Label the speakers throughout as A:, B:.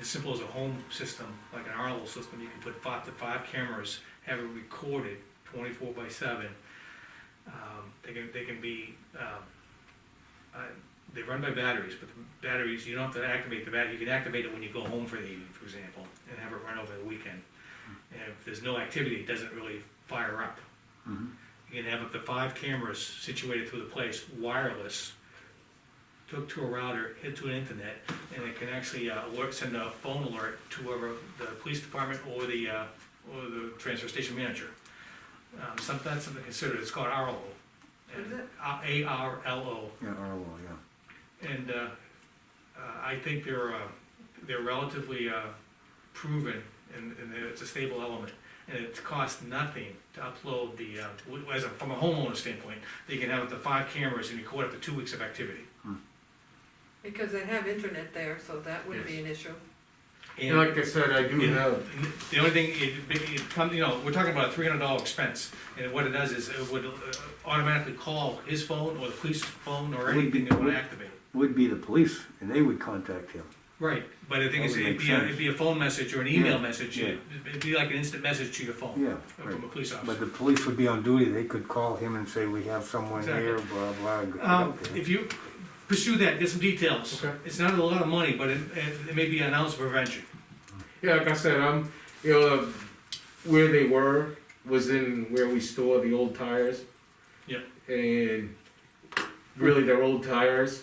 A: as simple as a home system, like an Arlo system, you can put five to five cameras, have it recorded twenty-four by seven. Um, They can, they can be, um, uh, they run by batteries, but the batteries, you don't have to activate the battery, you can activate it when you go home for the evening, for example, and have it run over the weekend. And if there's no activity, it doesn't really fire up.
B: Mhm.
A: You can have up to five cameras situated through the place, wireless, hooked to a router, hit to an internet, and it can actually, uh, alert, send a phone alert to whoever, the police department or the, uh, or the transfer station manager. Um, some, that's something considered, it's called ARLO.
C: What is it?
A: uh, A R L O.
B: Yeah, Arlo, yeah.
A: And uh, uh, I think they're, uh, they're relatively uh, proven and, and they're- it's a stable element. And it costs nothing to upload the, uh, w- as a, from a homeowner standpoint, they can have up to five cameras and record up to two weeks of activity.
C: Because they have internet there, so that wouldn't be an issue.
A: And
D: And like I said, I do
A: Yeah.
D: have,
A: the only thing, it, it comes, you know, we're talking about a three hundred dollar expense. And what it does is it would uh, automatically call his phone or the police phone or
B: Would be-
A: anything they want
B: would-
A: to activate.
B: Would be the police, and they would contact him.
A: Right, but the thing
B: That
A: is,
B: would
A: it'd
B: make
A: be, a-
B: sense.
A: it'd be a phone message or an email
B: Yeah,
A: message,
B: yeah.
A: it'd it'd be like an instant message to your phone.
B: Yeah,
A: uh,
B: right.
A: From a police
B: But
A: officer.
B: the police would be on duty, they could call him and say, we have someone
A: Exactly.
B: here, blah, blah. go
A: Um,
B: out there.
A: if you pursue that, get some details.
D: Okay.
A: It's not a lot of money, but it, it it may be an ounce of prevention.
D: yeah, like I said, I'm, you know, where they were was in where we store the old tires.
A: Yep.
D: And really, they're old tires,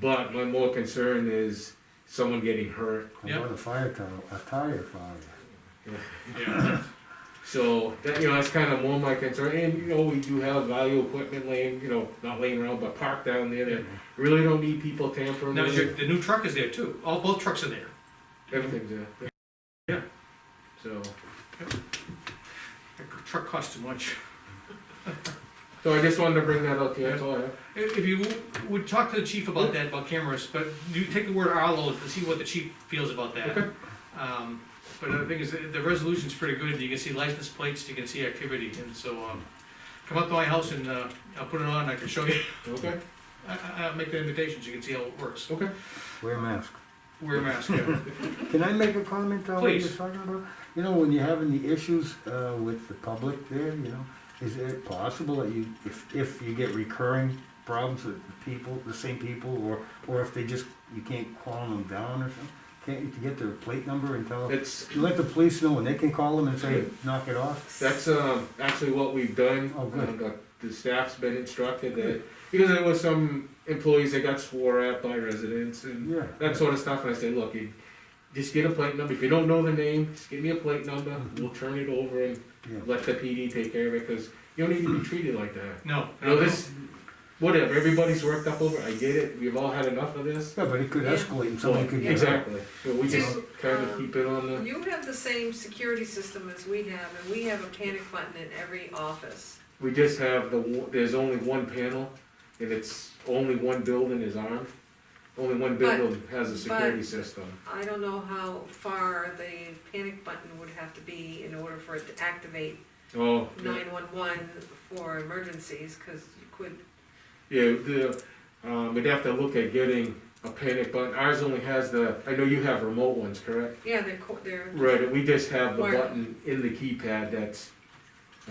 D: but my more concern is someone getting hurt.
B: How About a fire tunnel, a tire fire.
A: Yeah.
D: So that, you know, that's kind of more my concern. And you know, we do have value equipment laying, you know, not laying around, but parked down there. That really don't need people tampering.
A: Now,
D: with
A: your,
D: it.
A: the new truck is there too, all, both trucks are there.
D: Everything's there.
A: Yeah.
D: So.
A: The truck costs too much.
D: So I just wanted to bring that up to you, that's all I have.
A: If, if you would talk to the chief about that, about cameras, but you take the word Arlo to see what the chief feels about that.
D: Okay.
A: Um, but the thing is, the- the resolution's pretty good, you can see license plates, you can see activity, and so, um, come up to my house and, uh, I'll put it on, I can show you,
D: Okay,
A: I, I, I'll make the invitations, you can see how it works.
D: okay.
B: Wear a mask.
A: Wear a mask, yeah.
B: Can I make a comment on what you're
A: Please.
B: talking about? You know, when you're having the issues uh, with the public there, you know, is it possible that you, if, if you get recurring problems with the people, the same people, or, or if they just, you can't calm them down or something? Can't you get their plate number and tell them?
D: It's,
B: You let the police know and they can call them and say, knock it off?
D: that's, um, actually what we've done.
B: Oh, good.
D: Um, the- The staff's been instructed that, because there was some employees that got swore at by residents and
B: Yeah.
D: that sort of stuff, and I said, look, you, just get a plate number, if you don't know the name, just give me a plate number, we'll turn it over and
B: Yeah.
D: let the PD take care of it, cause you don't need to be treated like that.
A: No,
D: You know,
A: no,
D: this, whatever, everybody's worked up over, it. I get it, we've all had enough of this.
B: Yeah, but it could
C: Yeah.
B: escalate and somebody could get.
D: Exactly, so we
C: Do,
D: just kinda
C: um,
D: keep it on the.
C: You have the same security system as we have, and we have a panic button in every office.
D: We just have the, one- there's only one panel, and it's, only one building is armed. Only one
C: But-
D: building has a security system.
C: I don't know how far the panic button would have to be in order for it to activate
D: Oh, yeah,
C: nine-one-one for emergencies, cause you could,
D: yeah, the, um, we'd have to look at getting a panic button. Ours only has the, I know you have remote ones, correct?
C: yeah, they're, co- they're,
D: Right, we just have the
C: Where?
D: button in the keypad that's,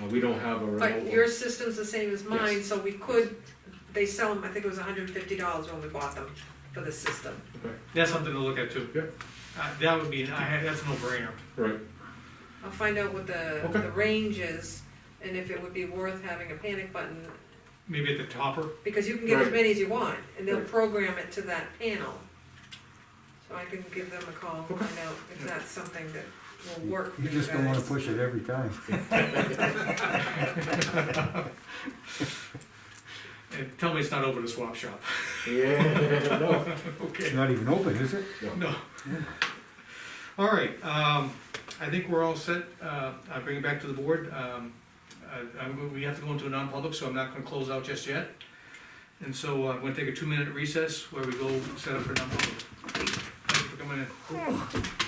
D: uh, we don't have a remote
C: but
D: one.
C: your system's the same as mine, so we could, they sell them, I think it was hundred and fifty dollars when we bought them for the system.
A: that's something to look at too.
D: Yep.
A: Uh, that would be, I, that's a no-brainer.
D: Right,
C: I'll find out what the,
D: Okay.
C: the range is, and if it would be worth having a panic button,
A: Maybe at the topper,
C: because you can get as
D: Right.
C: many as you want, and they'll
D: Right.
C: program it to that panel. So I can give them a call,
D: Okay.
C: find out if that's something that will work for
B: You
C: you
B: just don't wanna
C: guys.
B: push it every time.
A: and tell me it's not over the swap shop,
D: yeah, no,
A: okay?
B: It's not even open, is it?
A: No. All right, um, I think we're all set, uh, I'll bring it back to the board, um, I- I'm, we have to go into a non-public, so I'm not gonna close out just yet. And so uh, I'm gonna take a two-minute recess where we go set up for non-public. Thank you for coming in.